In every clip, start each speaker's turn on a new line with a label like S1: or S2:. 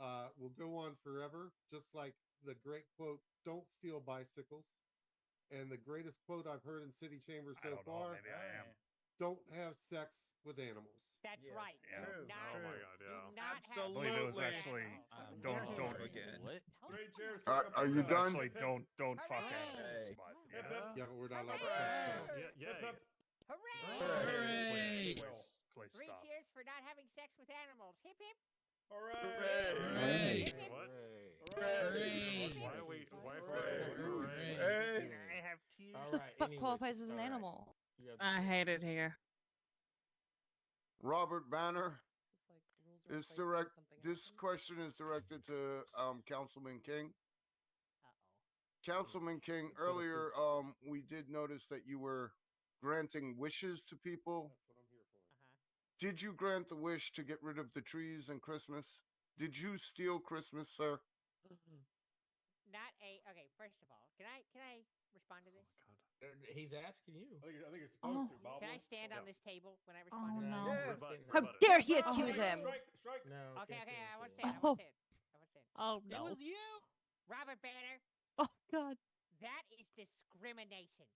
S1: uh, go on forever, just like the great quote, "Don't steal bicycles," and the greatest quote I've heard in city chambers
S2: I
S1: so
S2: don't know,
S1: far:
S2: maybe I am.
S1: "Don't have sex with animals."
S3: That's
S4: Yes.
S3: right.
S2: Yeah.
S3: Do
S4: True.
S3: not,
S2: Oh my
S4: True.
S2: god,
S3: do
S2: yeah.
S3: not
S4: Absolutely.
S3: have
S2: It was actually-
S3: Absolutely.
S2: don't- don't-
S5: Again. What?
S3: How's
S2: Great,
S3: that
S2: Jared.
S3: not-
S6: Uh, are you
S2: It's
S6: done?
S2: Actually, don't don't fuck
S3: Hey.
S2: animals. But,
S4: Hip,
S2: yeah.
S4: hip.
S1: Yeah, but we're not allowed to
S4: Hooray!
S1: have
S2: Yeah,
S1: sex.
S2: yeah, yeah.
S4: Hip, hip.
S2: Please,
S3: Hooray!
S5: Hooray!
S2: please, please
S3: Three
S2: stop.
S3: cheers for not having sex with animals. Hip hip.
S5: Hooray!
S3: Hooray!
S2: What?
S5: Hooray!
S2: Why are we? Why are we?
S4: Hooray!
S2: Hooray!
S4: Hooray!
S2: I have tears.
S4: All
S7: What
S4: right,
S7: the fuck
S4: anyways,
S7: qualifies as an
S4: all right.
S7: animal?
S4: You got the
S8: I
S4: floor.
S8: hate it here.
S6: Robert Banner. It's direct. This question is directed to um, Councilman King.
S3: Uh oh.
S6: Councilman King,
S1: It's sort of
S6: earlier um, we did notice that you were granting wishes to people.
S1: That's what I'm here for.
S3: Uh huh.
S6: Did you grant the wish to get rid of the trees and Christmas? Did you steal Christmas, sir?
S4: Uh,
S3: Not a. Okay. First of all, can I can I respond to
S2: Oh
S3: this?
S2: my god.
S4: Uh, He's asking you.
S9: I think, you're- I think you're
S7: Oh.
S9: supposed to, Bob.
S3: Can I stand
S2: Yeah.
S3: on this table when I respond?
S7: Oh,
S3: to this?
S7: no.
S4: Yes.
S2: Rebut,
S4: How
S2: rebut it.
S7: dare he accuse
S9: Strike,
S7: him?
S9: Strike, strike.
S4: No.
S3: Okay.
S4: can't
S3: Okay.
S4: say
S3: I
S4: that
S3: want to
S4: shit.
S3: stand. I
S7: Oh.
S3: want to stand. I want to stand.
S7: Oh
S5: It
S7: no!
S5: was you.
S3: Robert Banner,
S7: Oh god!
S3: that is discrimination.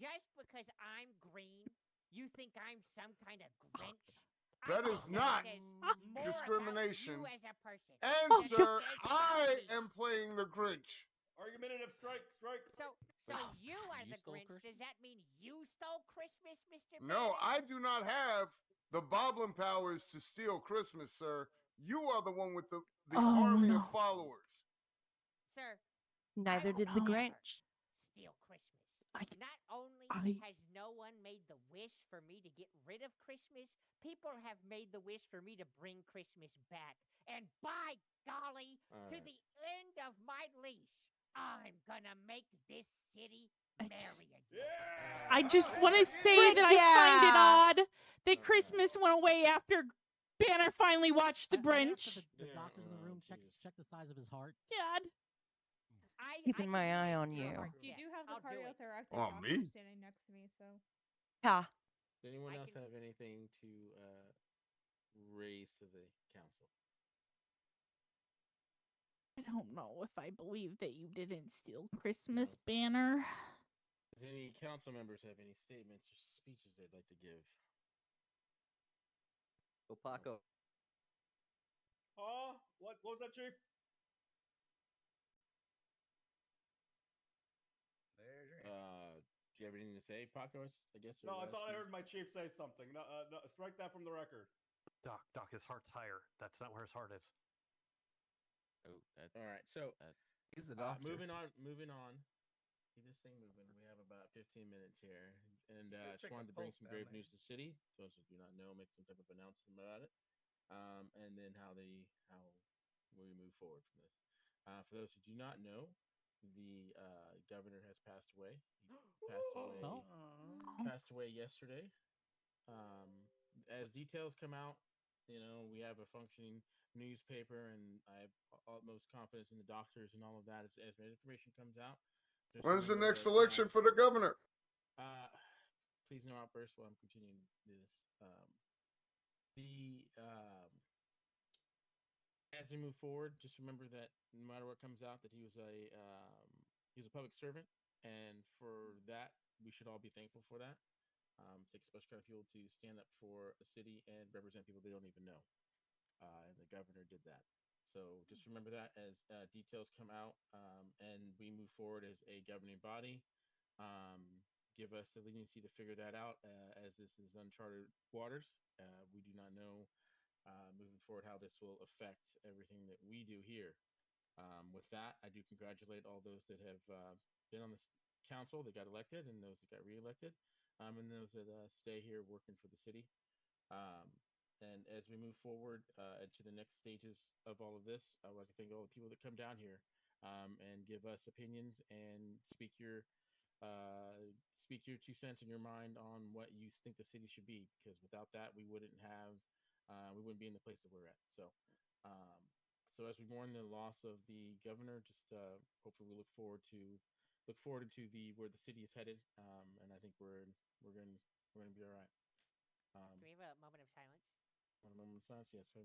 S3: Just because I'm green, you think I'm some kind of Grinch? I
S6: That
S3: think
S6: is not
S3: says more
S10: Ah.
S3: about
S6: discrimination. Eh,
S3: You as a person.
S6: And,
S3: Oh,
S6: sir,
S3: God.
S6: I am playing the Grinch.
S9: Argumentative strike, strike.
S3: So, so
S5: Oh,
S3: you are
S5: you
S3: the
S5: stole
S3: Grinch.
S5: Christmas?
S3: Does that mean you stole Christmas, Mister?
S6: No, I do not have the Boblin powers to steal Christmas, sir. You are the one with the, the
S7: Oh,
S6: army
S7: no.
S6: of followers.
S3: sir,
S7: Neither did the
S3: don't ever.
S7: Grinch.
S3: steal Christmas.
S7: I-
S3: Not only
S7: I-
S3: has no one made the wish for me to get rid of Christmas, people have made the wish for me to bring Christmas back. And by golly,
S4: All
S3: to
S4: right.
S3: the end of my leash, I'm gonna make this city
S7: I
S3: merry
S7: just-
S3: again.
S9: Yeah.
S8: I just want to say
S7: Frick
S8: that I find it odd
S4: Okay.
S6: Oh,
S8: that Christmas went away after Banner finally watched The
S5: I- I asked
S8: Grinch.
S5: if The, the
S4: Yeah,
S5: doctors in the
S4: oh,
S5: room check
S4: Jesus.
S5: check the size of his heart.
S8: God.
S3: I,
S7: Keeping
S3: I
S7: my
S3: can
S7: eye
S3: see
S7: on
S3: through
S7: you.
S3: her
S10: You
S3: death.
S10: do have the
S3: I'll do it.
S10: cardiothoracic
S6: Oh,
S10: doctor
S6: me?
S10: standing next to me, so
S7: Yeah.
S4: Does anyone
S3: I
S4: else
S3: can-
S4: have anything to uh, raise to the council?
S8: I don't know if I believe that you didn't steal Christmas Banner.
S4: Does any council members have any statements or speeches they'd like to give?
S5: Go Paco.
S9: Huh? What, what was that, Chief?
S2: There's your
S4: Uh, do you have anything to say, Paco? I s- I guess. or
S9: No, I
S4: Wes,
S9: thought I
S4: you-
S9: heard my chief say something. No, uh, no, strike that from the record.
S2: Doc, Doc, his heart's higher. That's not where his heart is.
S5: Oh, that
S4: All right, so
S5: is the
S4: Uh, moving on, moving on. Keep this thing moving. We have about 15 minutes here, and uh, I just
S2: check
S4: wanted
S2: the
S4: to bring
S2: pulse
S4: some
S2: down
S4: grave
S2: there.
S4: news to the city. For Those who do not know, make some type of announcement about it, um, and then how they how we move forward from this. Uh, for those who do not know, the uh, governor has passed away. He passed away. Passed away yesterday. Um, as details come out, you know we have a functioning newspaper, and I have u- utmost confidence in the doctors and all of that. As, as information comes out, there's
S6: When's the
S4: something that
S6: next
S4: goes
S6: election
S4: on.
S6: for the governor?
S4: Uh, please no outbursts while I'm continuing to do this. Um, the um, as we move forward, just remember that no matter what comes out, that he was a um, he was a public servant, and for that we should all be thankful for that. Um, take a special kind of people to stand up for a city and represent people they don't even know, uh, and the governor did that. So just remember that as uh, details come out um, and we move forward as a governing body. Um, give us the leniency to figure that out uh, as this is uncharted waters. Uh, we do not know uh, moving forward how this will affect everything that we do here. Um, with that, I do congratulate all those that have uh, been on this council that got elected and those that got reelected, um, and those that uh, stay here working for the city. Um, and as we move forward uh, into the next stages of all of this, I would like to thank all the people that come down here um, and give us opinions and speak your uh, speak your two cents in your mind on what you think the city should be. Because without that, we wouldn't have uh, we wouldn't be in the place that we're at. So, um, so as we mourn the loss of the governor, just uh, hopefully we look forward to look forward into the where the city is headed. Um, and I think we're we're going to we're going to be all right. Um,
S3: Can we have a moment of silence?
S4: one moment of silence. Yes, we have a